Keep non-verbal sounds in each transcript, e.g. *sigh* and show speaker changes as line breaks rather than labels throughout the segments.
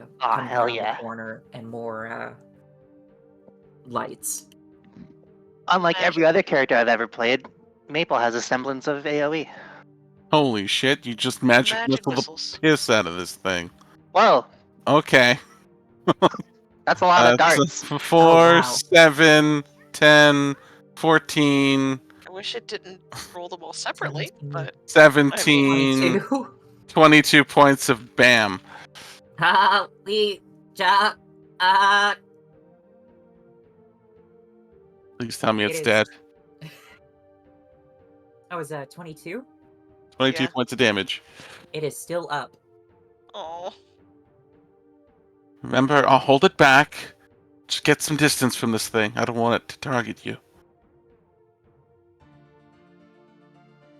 Aw,
comes
Ah, hell
around the
yeah.
corner and more uh, lights.
Unlike every other character I've ever played, Maple has a E. semblance of AoE.
Holy shit, you just magic,
Magic
missile the
missiles.
piss out of this thing.
Whoa,
Okay.
that's a lot of
That's
darts.
f-
Oh,
four,
wow.
seven, 10, 14,
I wish it didn't roll them all separately, but
17, 22 points of BAM.
*laughs* Holy ja, uh,
Please tell me
It
it's
is.
dead.
that was uh, 22.
22
Yeah.
points of damage.
It is still up.
oh,
Remember, I'll hold it back. Just get some distance from this thing. I don't want it to target you.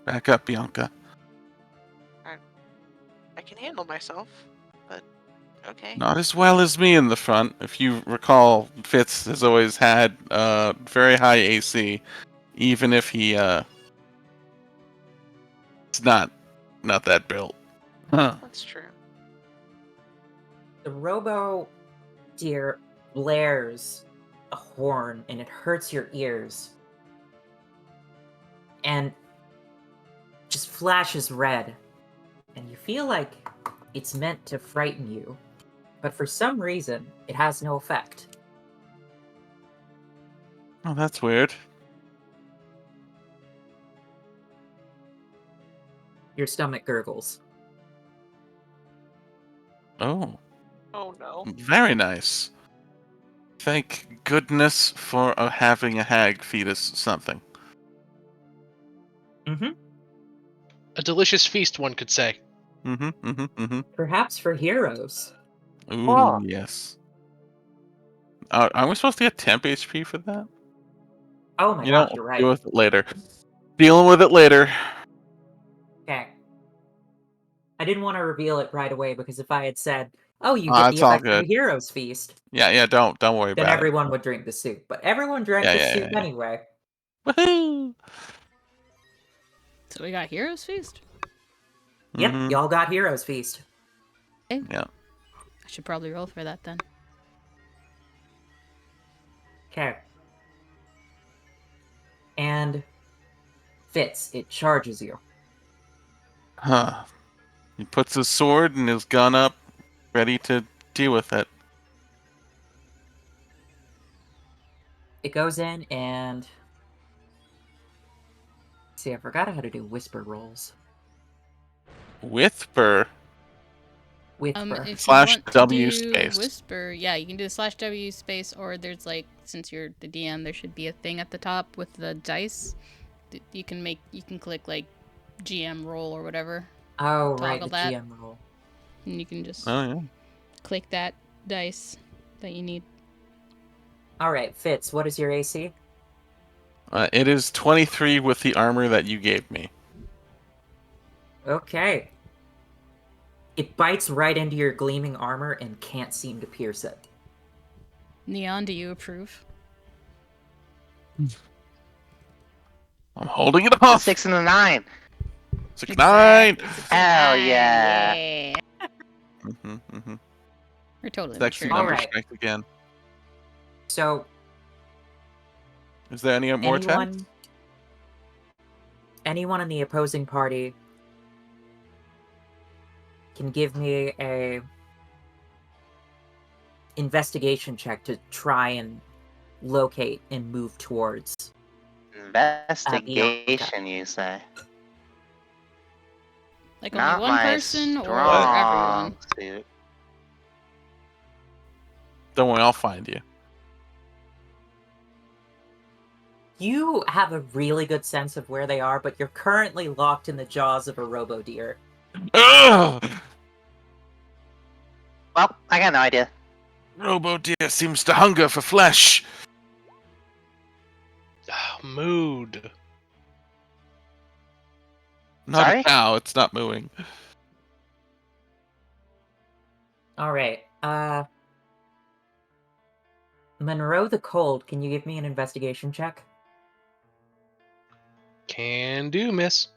Back up, Bianca.
I can handle myself. But okay.
Not as well as me in the front. If you recall, Fitz has always had uh, very high AC, even if he uh, it's not not that built. Huh.
That's true.
The robo deer blares a horn and it hurts your ears. And just flashes red. And you feel like it's meant to frighten you. But for some reason, it has no effect.
Oh, that's weird.
Your stomach gurgles.
Oh,
Oh no.
very nice. Thank goodness for uh, having a hag feed us something.
A delicious feast, one could say.
Mm-hmm. Mm-hmm. Mm-hmm.
Perhaps for heroes.
Ooh,
Oh.
yes. Are, are we supposed to get temp HP for that?
Oh my
you know,
gosh, you're right.
deal with it later. Dealing with it later.
Okay. I didn't want to reveal it right away because if I had said, "Oh, you
Ah,
get
it's
the
all
effect of
good.
the heroes feast,"
Yeah, yeah. Don't don't worry
then
about
everyone would drink the soup. But everyone drank
Yeah,
the
yeah,
soup
yeah, yeah.
anyway.
it. Woohoo!
So we got Heroes Feast.
Yep,
Mhm.
y'all got heroes feast.
I should probably roll for that then.
Okay. And Fitz, it charges you.
Huh. He puts his sword and his gun up, ready to deal with it.
It goes in and see. I forgot how to do whisper rolls.
With Burr.
Whisper.
Um, if you
Slash
want to
W
do
space.
Whisper, yeah, you can do slash W space, or there's like, since you're the DM, there should be a thing at the top with the dice. that You can make, you can click like GM roll or whatever,
oh right,
toggle
the
that.
GM roll.
and you can just
Oh yeah.
click that dice that you need.
All right, Fitz, what is your AC?
Uh, it is 23 with the armor that you gave me.
Okay. It bites right into your gleaming armor and can't seem to pierce it.
Neon, do you approve?
I'm holding it off.
Six and a nine.
Six, nine.
Exactly, six,
Hell
nine,
yeah.
yeah.
Mm-hmm, mm-hmm.
We're totally
Sexy
mature.
All
number
right.
strike again.
So
Is there any more
anyone,
attacks?
anyone in the opposing party can give me a investigation check to try and locate and move towards.
Uh,
Investigation, you say?
Like only
Not
one
my
person or everyone.
strong suit.
Don't worry, I'll find you.
You have a really good sense of where they are, but you're currently locked in the jaws of a robo deer.
Ugh!
Well, I got no idea.
Robo deer seems to hunger for flesh.
Ah, mood.
Not
Sorry?
a cow. It's not mooing.
All right. Uh Monroe the Cold, can you give me an investigation check?
Can do, miss.